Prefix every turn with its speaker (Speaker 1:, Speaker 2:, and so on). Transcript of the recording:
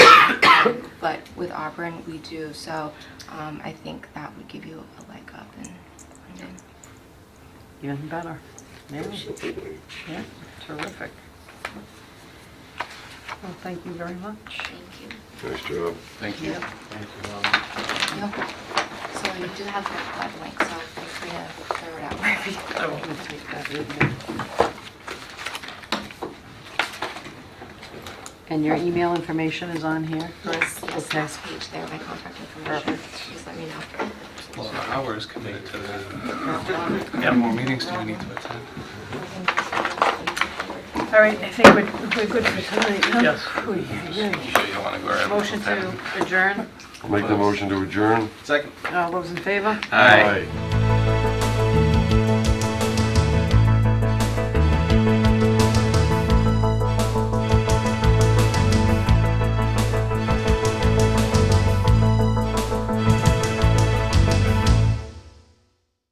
Speaker 1: Auburn, we do. So um, I think that would give you a leg up in London.
Speaker 2: Even better. Yeah,
Speaker 3: Absolutely.
Speaker 2: yeah, terrific. Well, thank you very much.
Speaker 1: Thank you.
Speaker 3: Nice job.
Speaker 4: Thank you.
Speaker 2: Yeah.
Speaker 1: Yep. So you do have that web link, so feel free to throw it out wherever you go.
Speaker 2: I will take that with me. And your email information is on here?
Speaker 1: Yes,
Speaker 2: correct?
Speaker 1: yes,
Speaker 2: Okay.
Speaker 1: last page there, my contact information.
Speaker 2: Perfect.
Speaker 1: Just let me know.
Speaker 4: Well, the hour is committed to the, how more meetings do we need to attend?
Speaker 5: All right, I think we're we're good for tonight, huh?
Speaker 4: Yes.
Speaker 5: Oy, oy, oy.
Speaker 4: Sure you don't want to go right.
Speaker 2: Motion to adjourn.
Speaker 3: Make the motion to adjourn.
Speaker 4: Second.
Speaker 2: All those in favor?
Speaker 4: Aye.
Speaker 3: Aye.